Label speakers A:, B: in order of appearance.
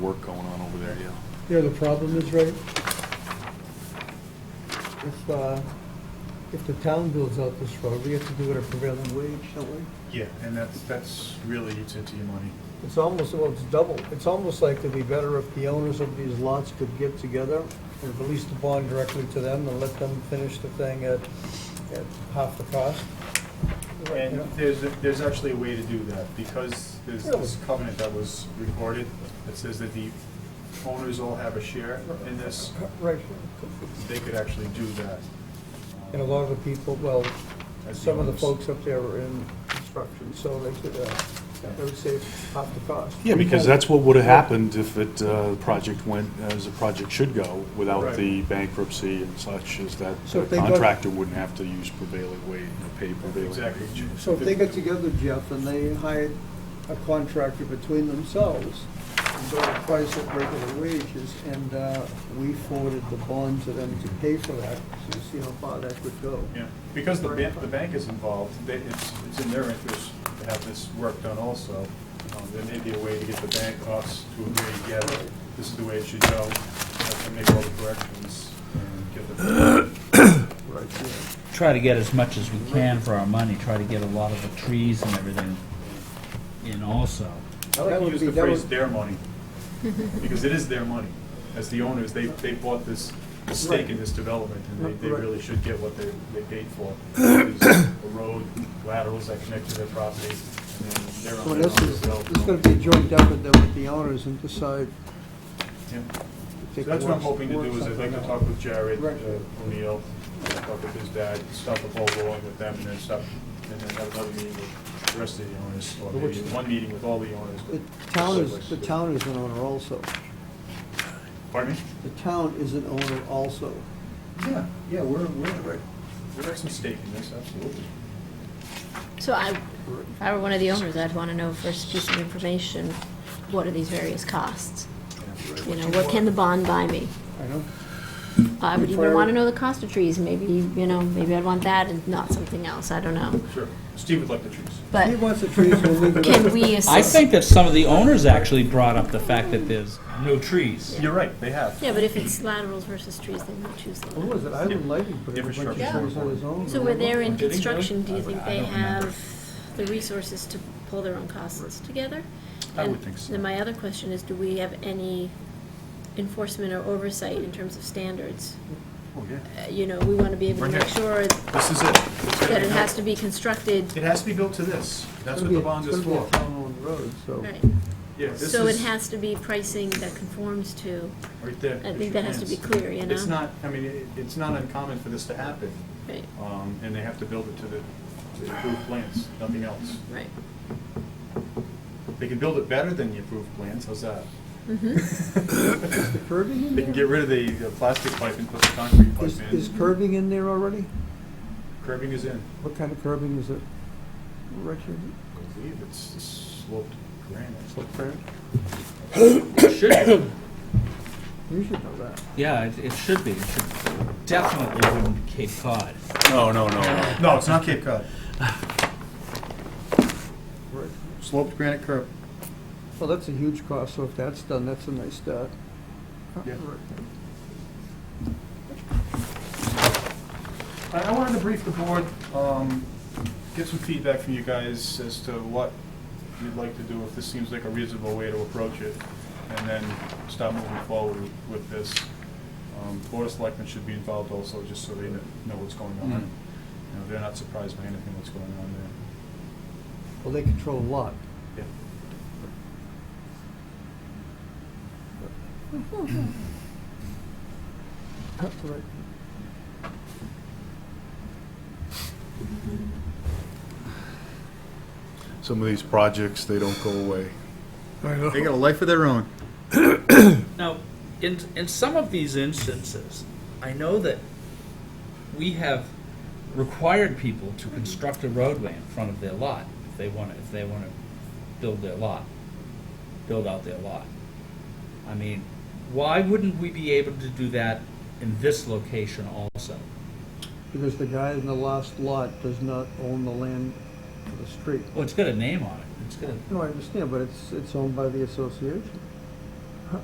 A: work going on over there, yeah.
B: Yeah, the problem is, right, if, uh, if the town builds out this road, we have to do it at prevailing wage, don't we?
A: Yeah, and that's, that's really eats into your money.
B: It's almost, well, it's double, it's almost like it'd be better if the owners of these lots could get together and release the bond directly to them and let them finish the thing at, at half the cost.
A: And there's, there's actually a way to do that, because there's this
B: Really?
A: covenant that was recorded that says that the owners all have a share in this,
B: Right,
A: they could actually do that.
B: and a lot of the people, well,
A: As the
B: some of the
A: owners.
B: folks up there are in construction, so they could, uh, they would save half the cost.
C: Yeah, because that's what would have happened if it, uh, the project went as the project should go,
A: Right.
C: without the bankruptcy and such, is that
B: So
C: the
B: if they got-
C: contractor wouldn't have to use prevailing wage, or pay prevailing
A: Exactly.
C: wage.
B: So if they got together, Jeff, and they hired a contractor between themselves, and got a price at regular wages, and uh, we forwarded the bond to them to pay for that, so you see how far that could go.
A: Yeah, because the bank, the bank is involved, they, it's, it's in their interest to have this work done also. Um, There may be a way to get the bank us to agree together, this is the way it should go, have to make all the corrections and give them.
B: Right, yeah.
D: try to get as much as we can for our money, try to get a lot of the trees and everything in also.
A: I like
B: That
A: to
B: would
A: use
B: be-
A: the
B: that
A: phrase
B: would-
A: their money, because it is their money. As the owners, they, they bought this, the stake in this development, and they, they
B: Right.
A: really should get what they, they paid for. There's A road, laterals that connect to their property, and then they're
B: So
A: on their
B: this
A: own
B: is,
A: development.
B: this is gonna be a joint effort then with the owners and decide.
A: Yeah.
B: if
A: So
B: they can
A: that's what I'm
B: work-
A: hoping to
B: work
A: do, is I'd like to
B: something
A: talk
B: out.
A: with Jared
B: Right.
A: uh, O'Neill, talk with his dad, start the ball rolling with them, and then stop, and then have another meeting with the rest of the owners, or maybe
B: Which-
A: one meeting with all the owners. but-
B: The town is, the town is an owner also.
A: Pardon me?
B: The town is an owner also.
A: Yeah, yeah, we're, we're, we have some stake in this, absolutely.
E: So I, if I were one of the owners, I'd want to know first piece of information, what are these various costs? You know, what can the bond buy me?
B: I know.
E: I would even want to know the cost of trees, maybe, you know, maybe I'd want that and not something else, I don't know.
A: Sure, Steve would like the trees.
B: He
E: But
B: wants the trees, we'll leave it.
E: can we assist?
D: I think that some of the owners actually brought up the fact that there's no trees.
A: You're right, they have.
E: Yeah, but if it's laterals versus trees, then we'll choose the
B: What was
E: laterals.
B: it, Island Lighting put in a bunch of
A: Infrastructure.
B: trees on his own?
E: So where they're
D: Did
E: in
D: he do it?
E: construction, do you think they
D: I don't remember.
E: have the resources to pull their own costs together?
A: I would
E: And
A: think so.
E: Then my other question is, do we have any enforcement or oversight in terms of standards?
A: Oh, yeah.
E: Uh, You know, we want to be able to
A: Right
E: make sure
A: here.
E: that
A: This is it. It's gotta be
E: it has to
A: built-
E: be constructed,
A: It has to be built to this,
B: It's
A: that's what
B: gonna
A: the
B: be-
A: bond is
B: It's gonna
A: for.
B: be a town-owned road, so.
E: right?
A: Yeah, this
E: So it
A: is-
E: has to be pricing that conforms to,
A: Right there.
E: I
A: it's
E: think
A: your
E: that has to be
A: hands.
E: clear, you know?
A: It's not, I mean, it- it's not uncommon for this to happen,
E: right,
A: um, and they have to build it to the, to the approved plans, nothing else.
E: right.
A: They can build it better than the approved plans, how's that?
E: Mhm.
B: Is the curbing in
A: They can
B: there?
A: get rid of the, the plastic pipe and put the concrete pipe
B: Is, is
A: in.
B: curbing in there already?
A: Curbing is in.
B: What kind of curbing is it? Richard?
A: I believe it's sloped granite.
B: What brand? You should know that.
D: Yeah, it, it should be. It should definitely wouldn't be Cape Cod.
C: No, no, no.
A: No, it's not Cape Cod.
B: Right.
A: Sloped granite curb.
B: Well, that's a huge cost, so if that's done, that's a nice start.
A: Yeah.
B: Right.
A: I, I wanted to brief the board, um, get some feedback from you guys as to what you'd like to do, if this seems like a reasonable way to approach it, and then start moving forward with this. Um, Board of Selectmen should be involved also, just so they kn- know what's going on.
D: Mm.
A: You know, they're not surprised by anything that's going on there.
B: Well, they control a lot. Right.
C: Some of these projects, they don't go away.
A: They got a life of their own.
F: Now, in, in some of these instances, I know that we have required people to construct a roadway in front of their lot if they want to, if they want to build their lot, build out their lot. I mean, why wouldn't we be able to do that in this location also?
B: Because the guy in the last lot does not own the land for the street.
F: Well, it's got a name on it. It's got a,
B: No, I understand, but it's, it's owned by the association.